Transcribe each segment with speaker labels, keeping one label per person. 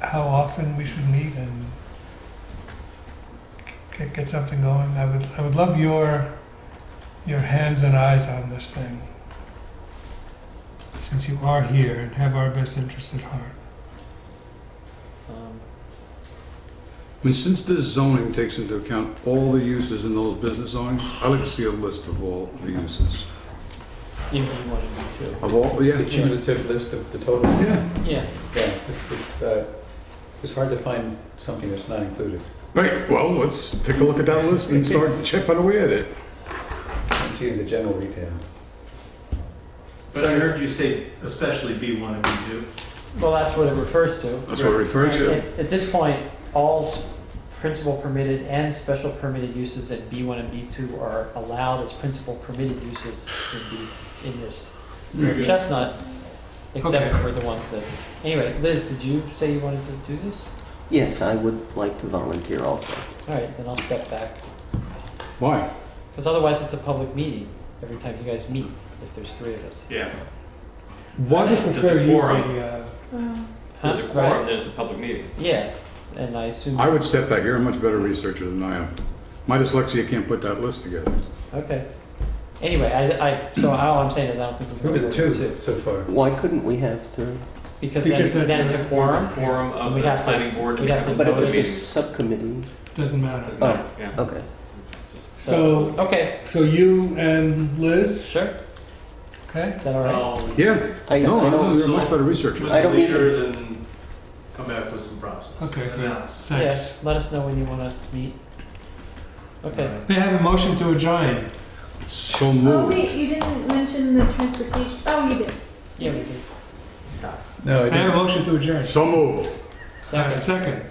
Speaker 1: how often we should meet and get, get something going. I would, I would love your, your hands and eyes on this thing. Since you are here and have our best interests at heart.
Speaker 2: Um,
Speaker 3: I mean, since this zoning takes into account all the uses in those business zones, I'd like to see a list of all the uses.
Speaker 2: Even you wanted me to.
Speaker 3: Of all, yeah,
Speaker 4: The cumulative list of the total.
Speaker 3: yeah,
Speaker 2: Yeah,
Speaker 4: Yeah, this is, uh, it's hard to find something that's not included.
Speaker 3: right, well, let's take a look at that list and start chipping away at it.
Speaker 4: Including the general retail.
Speaker 5: But I heard you say especially B1 and B2.
Speaker 2: well, that's what it refers to.
Speaker 3: That's what it refers to.
Speaker 2: At, at this point, all s- principal permitted and special permitted uses at B1 and B2 are allowed as principal permitted uses in, the, in this
Speaker 5: Very good.
Speaker 2: chestnut, except
Speaker 5: Okay.
Speaker 2: for the ones that. Anyway, Liz, did you say you wanted to do this?
Speaker 6: Yes, I would like to volunteer also.
Speaker 2: All right, then I'll step back
Speaker 3: Why?
Speaker 2: because otherwise it's a public meeting every time you guys meet. If there's three of us,
Speaker 5: Yeah.
Speaker 1: Why do you
Speaker 5: There's a
Speaker 1: prefer you
Speaker 5: quorum.
Speaker 1: be, uh,
Speaker 5: There's a
Speaker 2: Right?
Speaker 5: quorum, there's a public meeting.
Speaker 2: Yeah, and I assume.
Speaker 3: I would step back. You're a much better researcher than I am. My dyslexia can't put that list together.
Speaker 2: Okay. Anyway, I, I, so all I'm saying is I don't think we
Speaker 4: Who
Speaker 2: can go
Speaker 4: are the
Speaker 2: over
Speaker 4: two so far?
Speaker 6: Why couldn't we have three?
Speaker 2: Because then,
Speaker 1: Because that's
Speaker 2: then it's a
Speaker 1: what-
Speaker 2: quorum.
Speaker 5: Quorum of
Speaker 2: We'd
Speaker 5: the
Speaker 2: have to-
Speaker 5: planning board and
Speaker 2: we'd have
Speaker 5: have
Speaker 2: to
Speaker 6: But if
Speaker 2: Notice.
Speaker 6: it's a
Speaker 5: meeting.
Speaker 6: subcommittee,
Speaker 1: doesn't matter.
Speaker 5: Uh,
Speaker 6: Oh.
Speaker 5: Yeah.
Speaker 6: okay.
Speaker 1: So,
Speaker 2: Okay,
Speaker 1: so you and Liz,
Speaker 2: sure.
Speaker 1: okay?
Speaker 2: Is that all
Speaker 1: Oh,
Speaker 2: right?
Speaker 5: I'll meet
Speaker 3: Yeah,
Speaker 6: I,
Speaker 3: no,
Speaker 6: I
Speaker 3: no,
Speaker 6: don't,
Speaker 3: you're a much better researcher.
Speaker 5: with Um,
Speaker 6: I
Speaker 5: the
Speaker 6: don't need
Speaker 5: leaders and come back with some process.
Speaker 1: Okay,
Speaker 5: and
Speaker 1: great.
Speaker 5: analysis.
Speaker 2: Yeah,
Speaker 1: Thanks.
Speaker 2: let us know when you want to meet. Okay.
Speaker 1: They have a motion to adjourn.
Speaker 3: So
Speaker 7: Oh,
Speaker 3: moved.
Speaker 7: wait, you didn't mention the transportation. Oh, you did.
Speaker 2: Yeah, we can.
Speaker 4: No, I
Speaker 1: They have a
Speaker 4: didn't.
Speaker 1: motion to adjourn.
Speaker 3: So moved.
Speaker 1: All right,
Speaker 2: Second,
Speaker 1: second.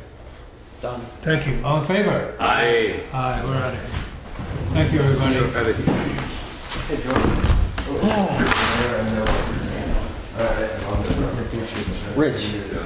Speaker 2: done.
Speaker 1: Thank you. All in favor?
Speaker 5: Aye.
Speaker 1: Aye, we're out of here. Thank you, everybody.
Speaker 3: Out of here.
Speaker 6: Rich.